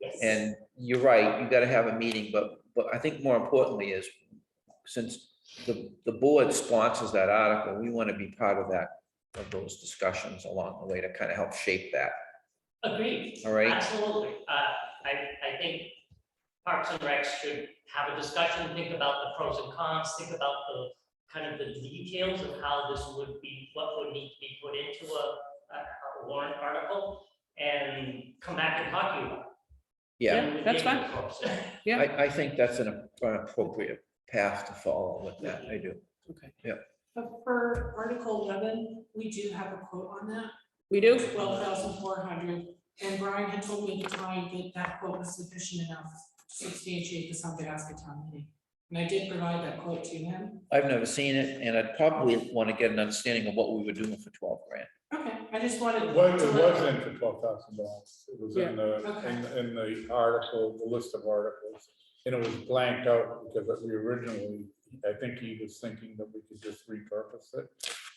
Yes. And you're right, you gotta have a meeting, but, but I think more importantly is, since the, the board sponsors that article, we wanna be part of that, of those discussions along the way to kind of help shape that, Agreed. all right? Absolutely. Uh, I, I think Parks and Rec should have a discussion, think about the pros and cons, think about the kind of the details of how this would be, what would need to be put into a, a- a warrant article and come back and talk to you. about it. Yeah, And that's give you fine. the pros. I, I think that's an appropriate path to follow with that, I do. Okay. But for Article eleven, we do have a quote on that, We do? twelve thousand four hundred. And Brian had told me to try and get that quote was sufficient enough to substantiate the South Alaska town meeting. And I did provide that quote to him. I've never seen it, and I'd probably wanna get an understanding of what we were doing for twelve grand. Okay, I just wanted. It was, to it let- was in for twelve thousand dollars. It was in the, in, in the article, the list of articles. And it was blanked out because we originally, I think he was thinking that we could just repurpose it.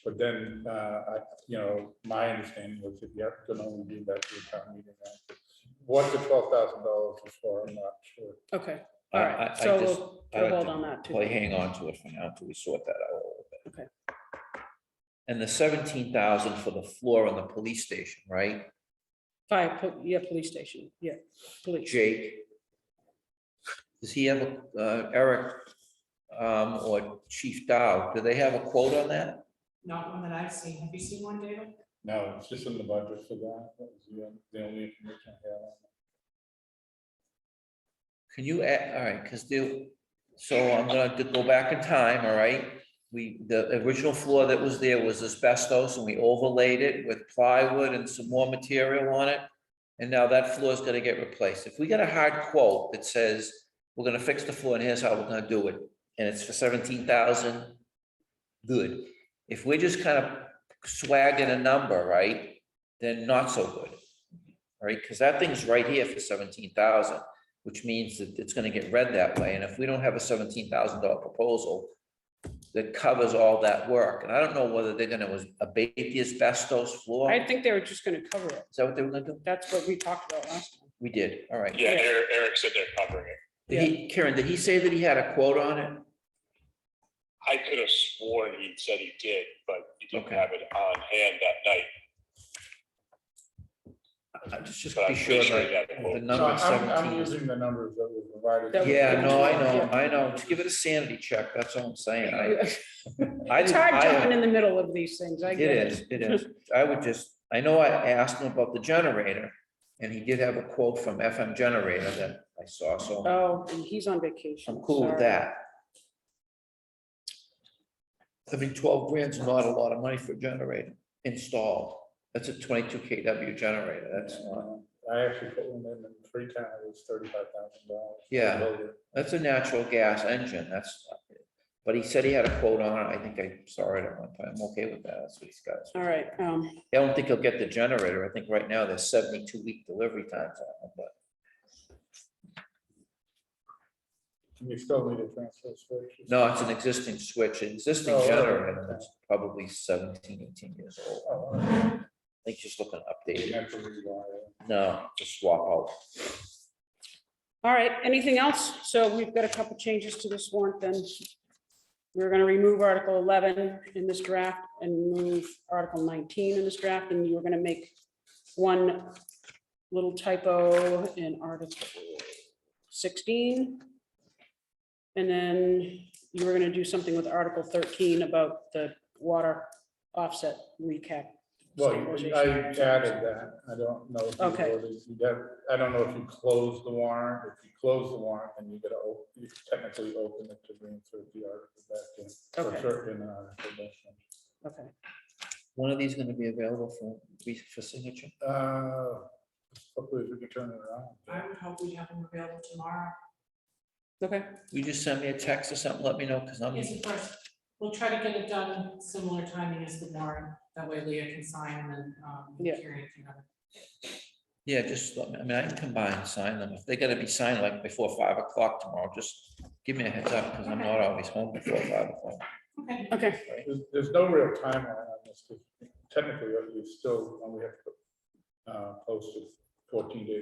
But then, uh, I, you know, my understanding was that you have to only do that to a town meeting. act. What the twelve thousand dollars was for, I'm not sure. Okay, I- all I- I right, so just- we'll, I we'll like hold to on that too. Play, hang on to it for now until we sort that out a little bit. Okay. And the seventeen thousand for the floor on the police station, right, Fire, po- yeah, police station, yeah, police. Jake? Does he have, a- uh, Eric, um, or Chief Dow, do they have a quote on that? Not one that I've seen. Have you seen one, David? No, it's just in the budget for that. That was the on- the only information I had. on Can you add, all right, because they, so I'm gonna go back in time, all right? We, the original floor that was there was asbestos and we overlaid it with plywood and some more material on it. And now that floor is gonna get replaced. If we get a hard quote that says, we're gonna fix the floor and here's how we're gonna do it, and it's for seventeen thousand, good. If we're just kind of swagging a number, right, then not so good. All right, because that thing's right here for seventeen thousand which means that it's gonna get read that way, and if we don't have a seventeen thousand dollar proposal that covers all that work, and I don't know whether they're gonna was- abate the asbestos floor, I is think they were just gonna cover it. that what they were gonna do? That's what we talked about last time. We did, all right. Yeah, Eric, Eric said they're covering it. Did he, Karen, did he say that he had a quote on it? I could have sworn he said he did, but he didn't Okay. have it on hand that night. I- I Just, just But be I'm sure pretty sure he that had the a that. So quote. number I'm, I'm seventeen. using the numbers that were provided. That was- Yeah, no, I know, I know, just give it a sanity check, that's all I'm saying, I. I It's didn't- hard I- jumping in the middle of these things, I get It is, it is. I would just, I know I asked him about the generator, and he did have a quote from FM Generator that I saw, so Oh, and he's on vacation. I'm cool with sorry. that. I mean, twelve grand's not a lot of money for a generator installed. That's a twenty-two KW generator, that's not, I actually put one in in Freetown, it was thirty-five thousand dollars. Yeah. that's a natural gas engine, that's. But he said he had a quote on it, I think I saw it at one point, I'm okay with that, that's what he's got. All right, um, I don't think he'll get the generator. I think right now there's seventy-two week delivery times on them, but You still need a transfer switch. no, it's an existing switch, An existing Oh, okay. generator. It's probably 17, 18 years old. Oh, okay. I think just looking You updated. have to rewire it. No, just swap out. all right, anything else? So we've got a couple changes to this warrant then. We're gonna remove Article eleven in this draft and move Article nineteen in this draft, and you're gonna make one little typo in Article sixteen. And then you were gonna do something with Article thirteen about the water offset recap. Well, I added that. I don't know. if you Okay. voted. You got- I don't know if you close the warrant. If you close the warrant, then you gotta, op- you technically open it to bring through the article back in. for Okay. certain uh, article back in. Okay, One of these gonna be available for, re- for signature? Uh, Hopefully we can turn it around. I would hope we'd have them available tomorrow. okay, You just send me a text or something, let me know, because I'm, Yes, of course. We'll try to get it done similar timing as the warrant. That way Leah can sign and then, um, Yeah. Karen can have it. yeah, just, let me. I mean, I can combine, and sign them. If they gotta be signed like before five o'clock tomorrow, just give me a heads up, because I'm not always home before five o'clock. Okay. okay. There's, there's no real timeline on this. 'cause Technically, you still, we have to uh, post it uh, fourteen days